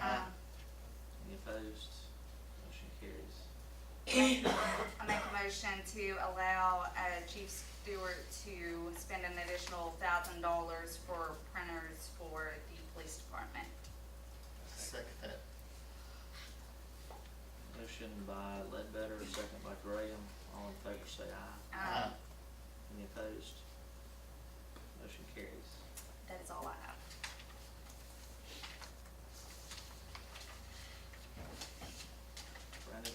um, I make a motion to allow uh, Chief Stewart to spend an additional thousand dollars for printers for the police department. Second that. Motion by Ledbetter, second by Graham. All in favor say aye. Um, Any opposed? Motion carries. That is all I have. Brandon,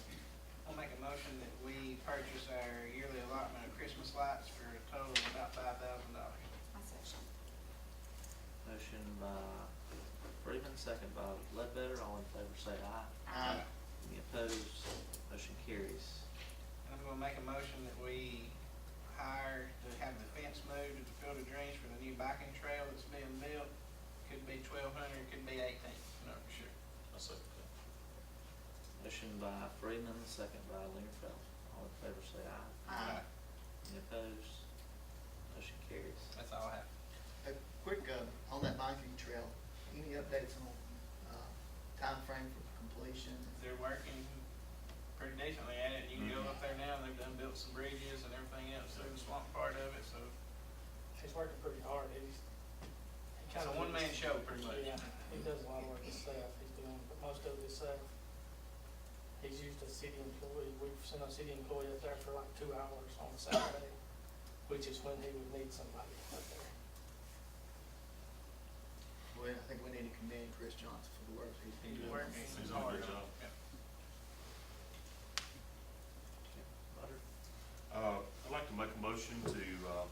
I'll make a motion that we purchase our yearly allotment of Christmas lights for a total of about five thousand dollars. My section. motion by Freeman, second by Ledbetter. All in favor say aye. Um, Any opposed? Motion carries. And I'm gonna make a motion that we hire to have the fence moved at the Field of Dreams for the new biking trail that's being built. Could be twelve hundred, could be eighteen, I'm not sure. Motion by Freeman, second by Lingerfeld. All in favor say aye. Uh-huh. um, Any opposed? Motion carries. That's all I have. A quick, uh, on that biking trail, any updates on, uh, timeframe for completion? They're working pretty decently at it. You can go up there now, they've done built some bridges and everything else through the swamp part of it, so He's working pretty hard, he's. he it's a kinda one-man does- show pretty much. Yeah, he does a lot of work himself, he's doing most of it himself. He's used a city employee, we've sent a city employee up there for like two hours on Saturday, which is when he would need somebody up there. Well, I think we need to commend Chris Johnson for the work he's been He's doing. working He's doing a hard. good job. Yeah. Butter? Uh, I'd like to make a motion to, uh,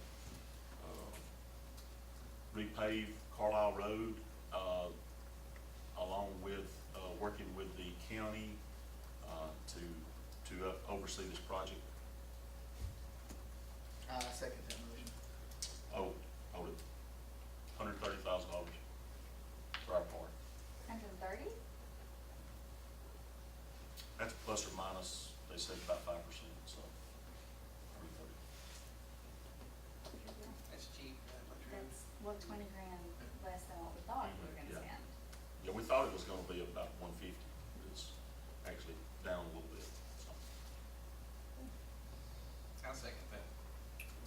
uh, repave Carlisle Road, uh, along with, uh, working with the county, uh, to, to uh, oversee this project. Uh, second that motion. Oh, oh, hundred thirty thousand dollars for our part. Hundred and thirty? That's plus or minus, they said about five percent, so. 130. That's cheap. uh, that much room. That's, well, twenty grand less than what we thought we were gonna Yeah. spend. Yeah, we thought it was gonna be about one fifty, it's actually down a little bit, so. I'll second that.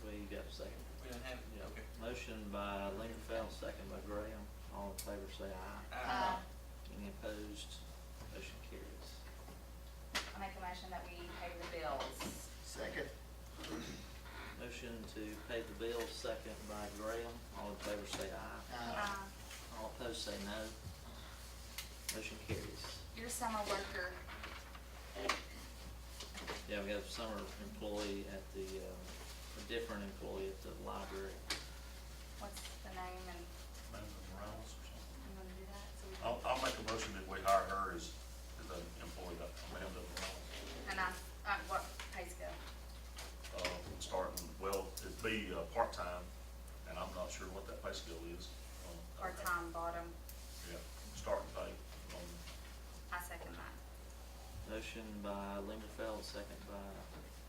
We got a second. We don't have it, Yeah. okay. Motion by Lingerfeld, second by Graham. All in favor say aye. Uh, Um, Any opposed? Motion carries. I make a motion that we pay the bills. Second. Motion to pay the bill, second by Graham. All in favor say aye. Uh, Um, All opposed say no. Motion carries. Your summer worker, Yeah, we have summer employee at the, um, a different employee at the library. what's the name and Amanda Morales or something. you wanna do that? so we can- I'll, I'll make a motion that we hire her as, as an employee, that Amanda Morales. And I, uh, what pay scale? Uh, starting, well, it'd be, uh, part-time, and I'm not sure what that pay scale is. um, I- Or time bottom? Yeah, starting pay, um, I second that. Motion by Lingerfeld, second by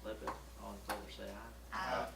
Ledbetter. All in favor say aye. Uh,